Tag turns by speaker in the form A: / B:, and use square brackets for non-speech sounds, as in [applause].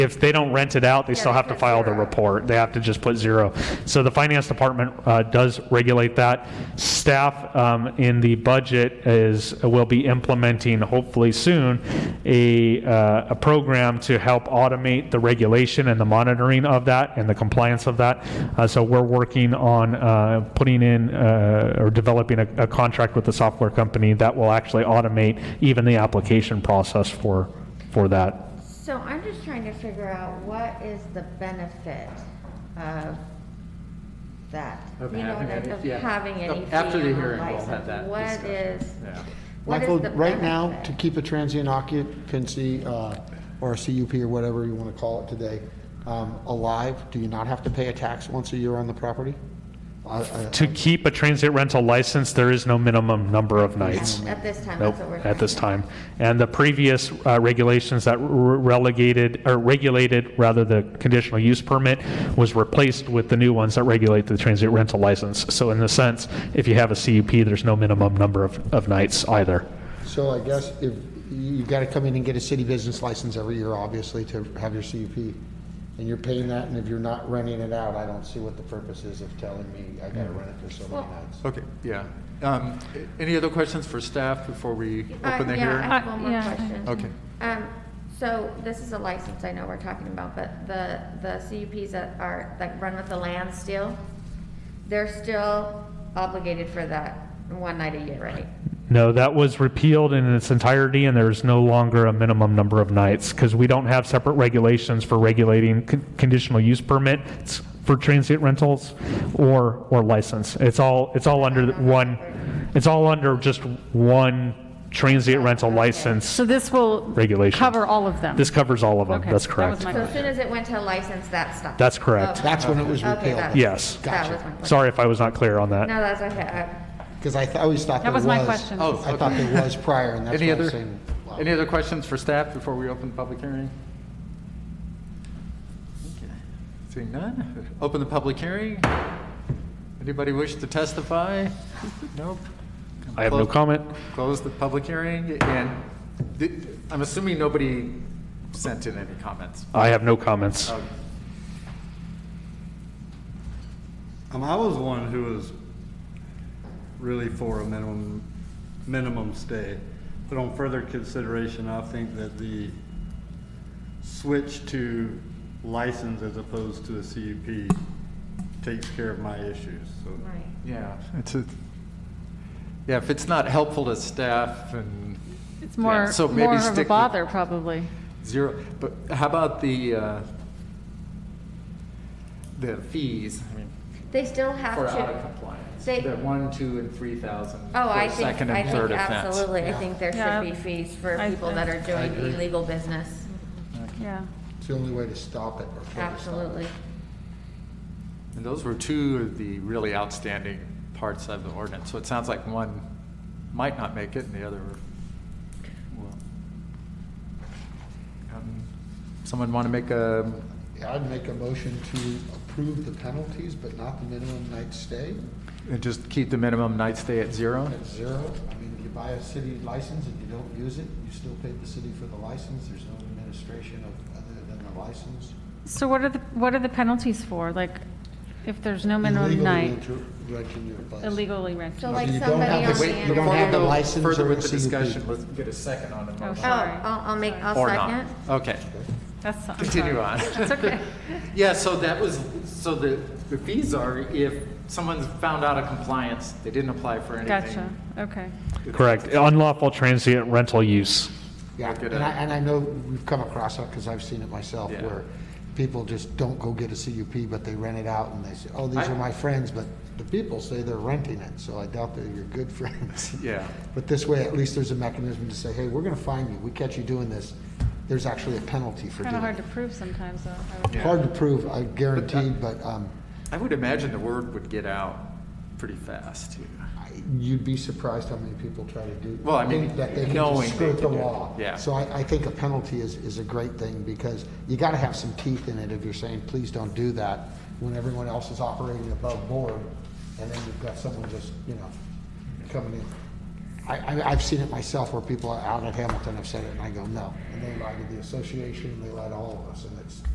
A: if they don't rent it out, they still
B: they
A: have to
B: put
A: file the
B: zero.
A: report. They have to just put zero. So the finance department uh, does regulate that. Staff um, in the budget is, will be implementing, hopefully soon, a, uh, a program to help automate the regulation and the monitoring of that and the compliance of that. Uh, So we're working on uh, putting in uh, or developing a a contract with the software company that will actually automate even the application process for, for that.
B: So I'm just trying to figure out what is the benefit of that?
C: Of
B: You know,
C: having
B: that-
C: any-
B: of
C: yeah.
B: having any fee
C: After
B: on
C: the
B: a
C: hearing, we'll have that
B: license. What
C: discussion.
B: is,
C: Yeah.
B: what is
D: Michael,
B: the
D: right now, to
B: benefit?
D: keep a transient occupancy, uh, or a CUP or whatever you want to call it today, um, alive, do you not have to pay a tax once a year on the property? I- I-
A: To keep a transient rental license, there is no minimum number of nights.
B: At this time,
A: Nope,
B: that's what we're.
A: at this
B: talking
A: time. And the previous uh, regulations that re- relegated, or regulated, rather, the conditional use permit was replaced with the new ones that regulate the transient rental license. So in a sense, if you have a CUP, there's no minimum number of, of nights either.
D: So I guess if, you've got to come in and get a city business license every year, obviously, to have your CUP, and you're paying that, and if you're not renting it out, I don't see what the purpose is of telling me I got to rent it for so many nights.
C: Okay, yeah. Um, a- Any other questions for staff before we
B: Uh,
C: open the
B: yeah, I
C: hearing?
B: have one more
E: Uh, yeah.
B: question.
C: Okay.
B: Um, so this is a license, I know we're talking about, but the, the CUPs that are, that run with the land still, they're still obligated for that one night a year, right?
A: No, that was repealed in its entirety, and there's no longer a minimum number of nights, because we don't have separate regulations for regulating con- conditional use permits for transient rentals or, or license. It's all, it's all under one, it's all under just one transient rental license.
E: So this will
A: Regulations.
E: cover all of them?
A: This covers all of them,
E: Okay,
A: that's
E: that was
A: correct.
E: my
B: So as soon as it went to license, that stopped.
A: That's correct.
B: Okay.
D: That's when it was
B: Okay,
D: repealed.
B: that-
A: Yes.
B: That was my question.
A: Sorry if I was not clear on that.
B: No, that's okay. Uh, I-
D: Because I th- I always thought
E: That
D: there
E: was
D: was.
E: my question.
C: Oh,
D: I thought
C: okay.
D: there was prior,
C: [laughs]
D: and that's
C: Any
D: why I'm
C: other,
D: saying. wow.
C: any other questions for staff before we open the public hearing? Okay. Seeing none, open the public hearing. Anybody wish to testify? Nope.
A: I have no
C: Close-
A: comment.
C: Close the public hearing, and th- I'm assuming nobody sent in any comments.
A: I have no comments.
C: Oh,
F: Um, I was one who was really for a minimum, minimum stay. But on further consideration, I think that the switch to license as opposed to a CUP takes care of my issues, so.
B: right.
C: Yeah, it's a, yeah, if it's not helpful to staff and.
E: It's
C: yeah,
E: more,
C: so maybe
E: more
C: stick
E: of a
C: with
E: bother, probably.
C: Zero, but how about the, uh, the fees? I mean,
B: They still have
C: For out of
B: to,
C: compliance,
B: they-
C: the one, two, and three thousand.
B: oh, I
C: for
B: think,
C: second
B: I
C: and third
B: think
C: offense.
B: absolutely, I think there
E: Yeah.
B: should be fees for
E: I-
B: people that are doing illegal business.
E: Yeah.
D: It's the only way to stop it. or further stop it.
B: Absolutely.
C: And those were two of the really outstanding parts of the ordinance, so it sounds like one might not make it and the other will. Um, Someone want to make a,
D: Yeah, I'd make a motion to approve the penalties, but not the minimum night stay
C: uh, just keep the minimum night stay at zero?
D: at zero. I mean, you buy a city license and you don't use it, you still pay the city for the license. There's no administration of, other than the license.
E: So what are the, what are the penalties for? Like, if there's no minimum
D: Illegally
E: night,
D: inter- renting your place.
E: illegally rented?
B: So like
D: you don't
B: somebody on the
D: have to-
C: Wait,
D: you
B: end.
D: don't
C: before we
D: have the
C: go
D: license
C: Further
D: or
C: with the
D: CUP.
C: discussion, let's get a second on the
B: Oh,
C: motion.
B: I'll, I'll make, I'll
C: Or not.
B: second.
C: Okay,
E: That's, I'm
C: continue
E: sorry.
C: on. [laughs]
E: That's okay.
C: Yeah, so that was, so the, the fees are if someone's found out of compliance, they didn't apply for
E: Gotcha,
C: anything.
E: okay.
A: Correct. Unlawful transient rental use.
D: Yeah,
C: Look at
D: and I,
C: it.
D: and I know we've come across that because I've seen it myself
C: Yeah.
D: where people just don't go get a CUP, but they rent it out and they say, oh, these
C: I-
D: are my friends, but the people say they're renting it, so I doubt they're your good [laughs] friends.
C: Yeah.
D: But this way, at least there's a mechanism to say, hey, we're gonna fine you, we catch you doing this, there's actually a penalty for
E: Kind of
D: doing
E: hard
D: it.
E: to prove sometimes, though. I would-
C: Yeah.
D: Hard to prove, I guaranteed, but, um,
C: I would imagine the word would get out pretty fast.
D: I- you'd be surprised how many people try to do.
C: Well, I mean,
D: think That they can
C: knowing
D: just
C: they
D: skirt the
C: can do it,
D: law.
C: yeah.
D: So I, I think a penalty is, is a great thing because you gotta have some teeth in it if you're saying, please don't do that when everyone else is operating above board and then you've got someone just, you know, coming in. I, I, I've seen it myself where people out at Hamilton have said it, and I go, no. And they lie to the association, and they lie to all of us, and it's,